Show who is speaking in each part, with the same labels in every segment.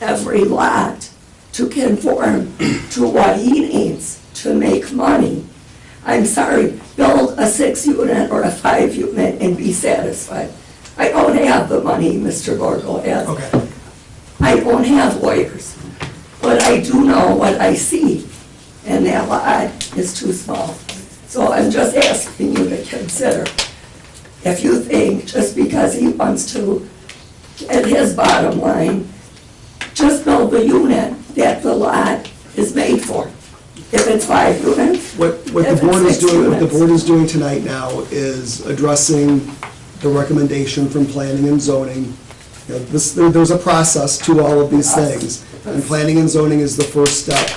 Speaker 1: every lot to conform to what he needs to make money. I'm sorry, build a six unit or a five unit and be satisfied. I don't have the money Mr. Borgo has.
Speaker 2: Okay,
Speaker 1: I don't have lawyers, but I do know what I see, and that lot is too small. So I'm just asking you to consider, if you think, just because he wants to get his bottom line, just build the unit that the lot is made for. If it's five units,
Speaker 2: what, what the
Speaker 1: If
Speaker 2: board
Speaker 1: it's
Speaker 2: is doing, what the
Speaker 1: six
Speaker 2: board is doing tonight now is addressing the recommendation from planning and zoning. You know, this, there- there's a process to all of these things, and planning and zoning is the first step,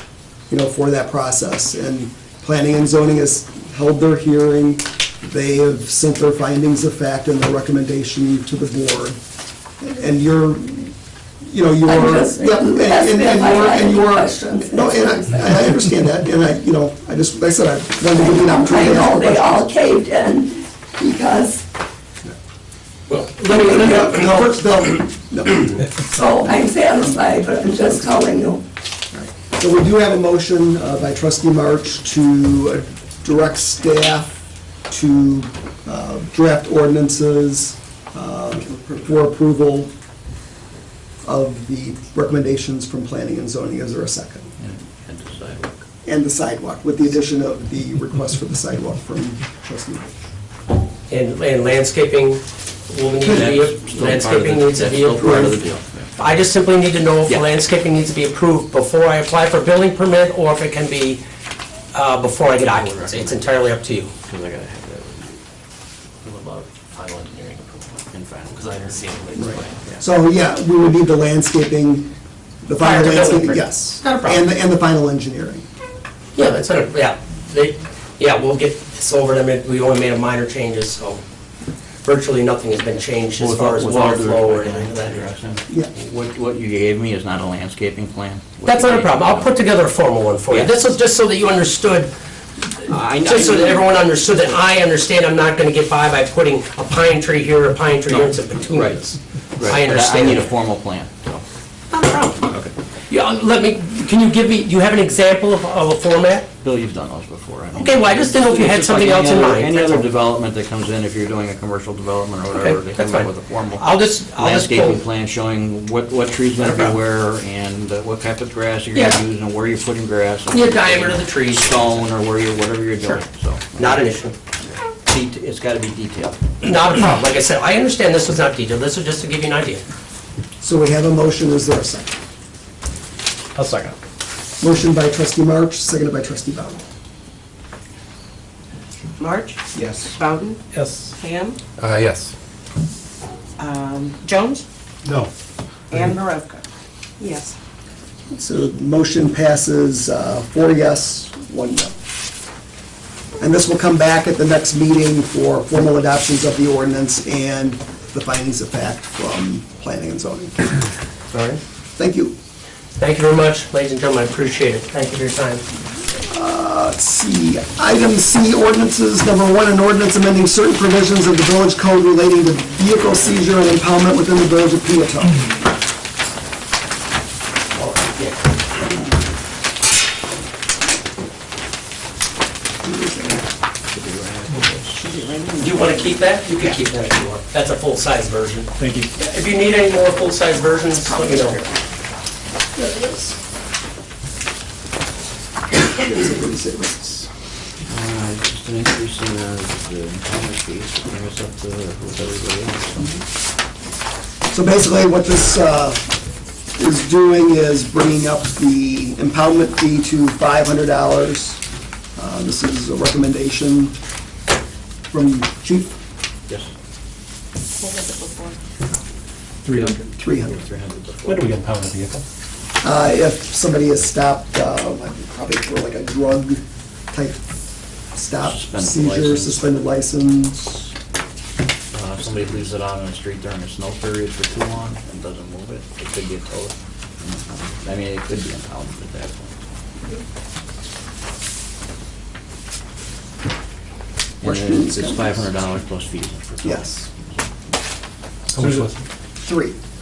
Speaker 2: you know, for that process. And planning and zoning has held their hearing, they have sent their findings of fact and their recommendation to the board. And you're, you know, you
Speaker 1: I'm
Speaker 2: are.
Speaker 1: just-
Speaker 2: yeah, and-
Speaker 1: that's
Speaker 2: and- and
Speaker 1: if I
Speaker 2: you are-
Speaker 1: had
Speaker 2: and you
Speaker 1: any
Speaker 2: are-
Speaker 1: questions,
Speaker 2: No,
Speaker 1: that's
Speaker 2: and
Speaker 1: what I'm saying.
Speaker 2: I, I understand that, and I, you know, I just, like I said, I wanted to give you an
Speaker 1: I
Speaker 2: opportunity to
Speaker 1: know
Speaker 2: ask
Speaker 1: they all
Speaker 2: questions.
Speaker 1: caved in because,
Speaker 3: Well,
Speaker 2: Let me, let me, no, first, no, no.
Speaker 1: so I'm satisfied, but I'm just telling you.
Speaker 2: So we do have a motion uh, by trustee March to uh, direct staff to uh, draft ordinances uh, for approval of the recommendations from planning and zoning. Is there a second?
Speaker 4: and the sidewalk.
Speaker 2: And the sidewalk, with the addition of the request for the sidewalk from trustee March.
Speaker 5: And, and landscaping will need to
Speaker 4: That's
Speaker 5: be,
Speaker 4: still part of the-
Speaker 5: landscaping needs to
Speaker 4: that's
Speaker 5: be
Speaker 4: still part of the
Speaker 5: approved.
Speaker 4: deal.
Speaker 5: I just simply need to know if
Speaker 4: Yeah.
Speaker 5: landscaping needs to be approved before I apply for a building permit, or if it can be, uh, before I get occupancy. It's entirely up to you.
Speaker 4: Because I gotta have that with you. What about final engineering approval? And final, because I haven't seen it lately.
Speaker 2: So, yeah, we would need the landscaping, the
Speaker 5: Prior to
Speaker 2: final
Speaker 5: building
Speaker 2: landscaping,
Speaker 5: permit.
Speaker 2: yes.
Speaker 5: Not a problem.
Speaker 2: And the, and the final engineering.
Speaker 5: Yeah, that's, not a- yeah, they, yeah, we'll get this over them, It- we only made a minor changes, so virtually nothing has been changed as far as water flow or anything like that.
Speaker 2: Yeah.
Speaker 4: What, what you gave me is not a landscaping plan? What
Speaker 5: That's
Speaker 4: you
Speaker 5: not a
Speaker 4: gave-
Speaker 5: problem, I'll put together a formal one for you.
Speaker 4: Yeah.
Speaker 5: This was just so that you understood
Speaker 4: I- I-
Speaker 5: Just so that everyone understood that I understand I'm not gonna get by by putting a pine tree here, a pine tree here, and some petunias.
Speaker 4: Right,
Speaker 5: I
Speaker 4: but I need a
Speaker 5: understand.
Speaker 4: formal plan, so.
Speaker 5: Not a problem. Yeah, let me, can you give me, do you have an example of, of a format?
Speaker 4: Bill, you've done those before. I mean-
Speaker 5: Okay, well, I just didn't know if you had
Speaker 4: It's just like
Speaker 5: something
Speaker 4: any
Speaker 5: else in
Speaker 4: other-
Speaker 5: mind,
Speaker 4: Any
Speaker 5: that's
Speaker 4: other
Speaker 5: all.
Speaker 4: development that comes in, if you're doing a commercial development or whatever,
Speaker 5: Okay,
Speaker 4: they
Speaker 5: that's
Speaker 4: come up
Speaker 5: fine.
Speaker 4: with a formal
Speaker 5: I'll just, I'll just
Speaker 4: landscaping
Speaker 5: pull,
Speaker 4: plan showing what, what trees
Speaker 5: Not
Speaker 4: gonna
Speaker 5: a
Speaker 4: be
Speaker 5: problem.
Speaker 4: where and uh, what type of grass you're gonna
Speaker 5: Yeah.
Speaker 4: use and where you're putting grass. and
Speaker 5: Yeah, diameter of the trees.
Speaker 4: Stone or where you're, whatever you're
Speaker 5: Sure.
Speaker 4: doing, so.
Speaker 5: not an issue,
Speaker 4: Det- It's gotta be detailed.
Speaker 5: not a problem. Like I said, I understand this was not detailed, this was just to give you an idea.
Speaker 2: So we have a motion, is there a second?
Speaker 5: I'll second.
Speaker 2: Motion by trustee March, seconded by trustee Bowden.
Speaker 6: March,
Speaker 2: Yes.
Speaker 6: Bowden,
Speaker 5: Yes.
Speaker 6: Ham,
Speaker 7: Uh, yes.
Speaker 6: um, Jones? No. And Maravka? Yes.
Speaker 2: So the motion passes uh, four yes, one no. And this will come back at the next meeting for formal adoptions of the ordinance and the findings of fact from planning and zoning.
Speaker 5: All right.
Speaker 2: Thank you.
Speaker 5: Thank you very much, ladies and gentlemen, I appreciate it. Thank you for your time.
Speaker 2: Let's see, item C, ordinances, number one, an ordinance amending certain provisions of the village code relating to vehicle seizure and impoundment within the village of Peatone.
Speaker 5: Do you want to keep that? You can keep that if you want. That's a full-size version. Thank you. If you need any more full-size versions, let me know.
Speaker 4: Uh, Just an increase in uh, the enrollment fees, to bring us up to with everybody else.
Speaker 2: So basically, what this uh, is doing is bringing up the impoundment fee to $500. Uh, This is a recommendation from chief,
Speaker 4: Yes.
Speaker 6: What was it before?
Speaker 7: 300.
Speaker 2: 300.
Speaker 4: Three hundred before.
Speaker 7: When do we get pound a vehicle?
Speaker 2: Uh, If somebody is stopped, uh, probably for like a drug-type stop,
Speaker 4: Suspended
Speaker 2: seizure,
Speaker 4: license.
Speaker 2: suspended license,
Speaker 4: Uh, If somebody leaves it out on the street during a snow period for too long and doesn't move it, it could be a total. I mean, it could be impounded at that point. And then
Speaker 2: Questions,
Speaker 4: It's
Speaker 2: comments?
Speaker 4: five hundred dollars plus fees for towing.
Speaker 2: yes,
Speaker 7: How much was it?
Speaker 2: three.